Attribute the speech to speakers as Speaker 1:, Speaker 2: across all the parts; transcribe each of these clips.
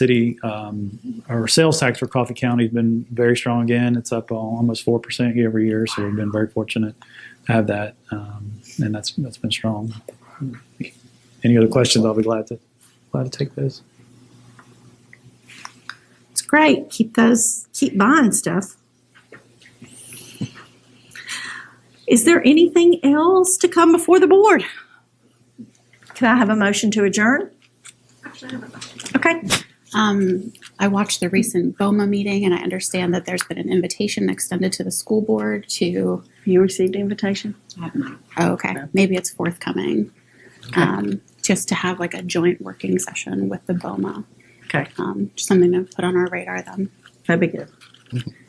Speaker 1: city, um, our sales tax for Coffee County has been very strong again. It's up almost four percent year over year, so we've been very fortunate to have that, um, and that's that's been strong. Any other questions? I'll be glad to glad to take those.
Speaker 2: It's great. Keep those, keep buying stuff. Is there anything else to come before the board? Can I have a motion to adjourn? Okay,
Speaker 3: Um, I watched the recent BOMA meeting and I understand that there's been an invitation extended to the school board to,
Speaker 4: You received the invitation?
Speaker 3: oh, okay, maybe it's forthcoming. Um, just to have like a joint working session with the BOMA.
Speaker 4: Okay.
Speaker 3: Um, just something to put on our radar then.
Speaker 4: That'd be good.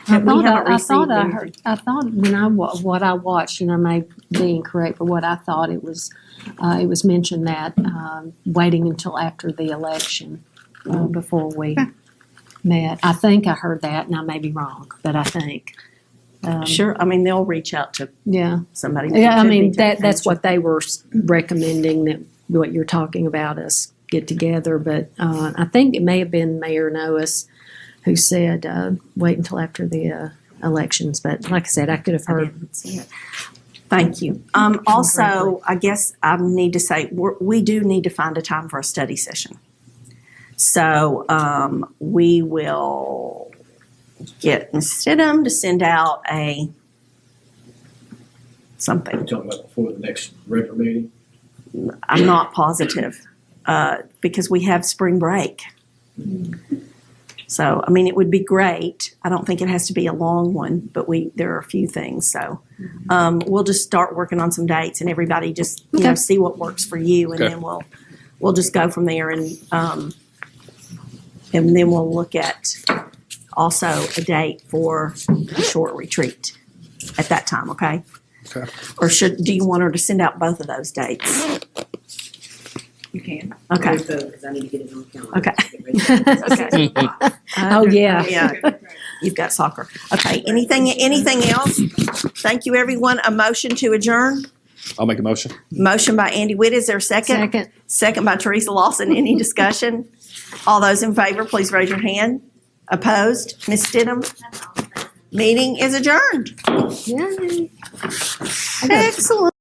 Speaker 5: I
Speaker 4: But we
Speaker 5: thought,
Speaker 4: haven't
Speaker 5: I, I thought
Speaker 4: received
Speaker 5: I
Speaker 4: anything.
Speaker 5: heard, I thought when I, wa- what I watched, and I may be incorrect, but what I thought it was, uh, it was mentioned that, um, waiting until after the election, uh, before we met. I think I heard that, and I may be wrong, but I think. um,
Speaker 4: Sure, I mean, they'll reach out to
Speaker 5: Yeah,
Speaker 4: somebody.
Speaker 5: yeah, I
Speaker 4: Could
Speaker 5: mean,
Speaker 4: reach out
Speaker 5: that,
Speaker 4: to
Speaker 5: that's
Speaker 4: them.
Speaker 5: what they were s- recommending, that, what you're talking about, us get together, but, uh, I think it may have been Mayor Noes who said, uh, wait until after the, uh, elections, but like I said, I could have heard
Speaker 4: Thank you. Um, also, I guess I need to say, we're, we do need to find a time for a study session. So, um, we will get Ms. Stidham to send out a something.
Speaker 6: We're talking about before the next regular meeting?
Speaker 4: I'm not positive uh, because we have spring break. So, I mean, it would be great. I don't think it has to be a long one, but we there are a few things. So, um, we'll just start working on some dates, and everybody just you know
Speaker 5: Okay.
Speaker 4: see what works for you, and
Speaker 7: Okay.
Speaker 4: then we'll we'll just go from there, and um, and then we'll look at also a date for a short retreat at that time. Okay.
Speaker 7: Okay.
Speaker 4: Or should do you want her to send out both of those dates?
Speaker 8: You can.
Speaker 4: Okay.
Speaker 8: Because I need to get it on
Speaker 4: Okay.
Speaker 8: calendar. Okay.
Speaker 5: Oh, yeah.
Speaker 4: Yeah, you've got soccer. Okay, anything, anything else? Thank you, everyone. A motion to adjourn.
Speaker 7: I'll make a motion.
Speaker 4: Motion by Andy Witt. Is there a second?
Speaker 5: Second.
Speaker 4: Second by Teresa Lawson. Any discussion? All those in favor, please raise your hand. Opposed? Ms. Stidham? Meeting is adjourned.
Speaker 5: Yay.
Speaker 4: Excellent.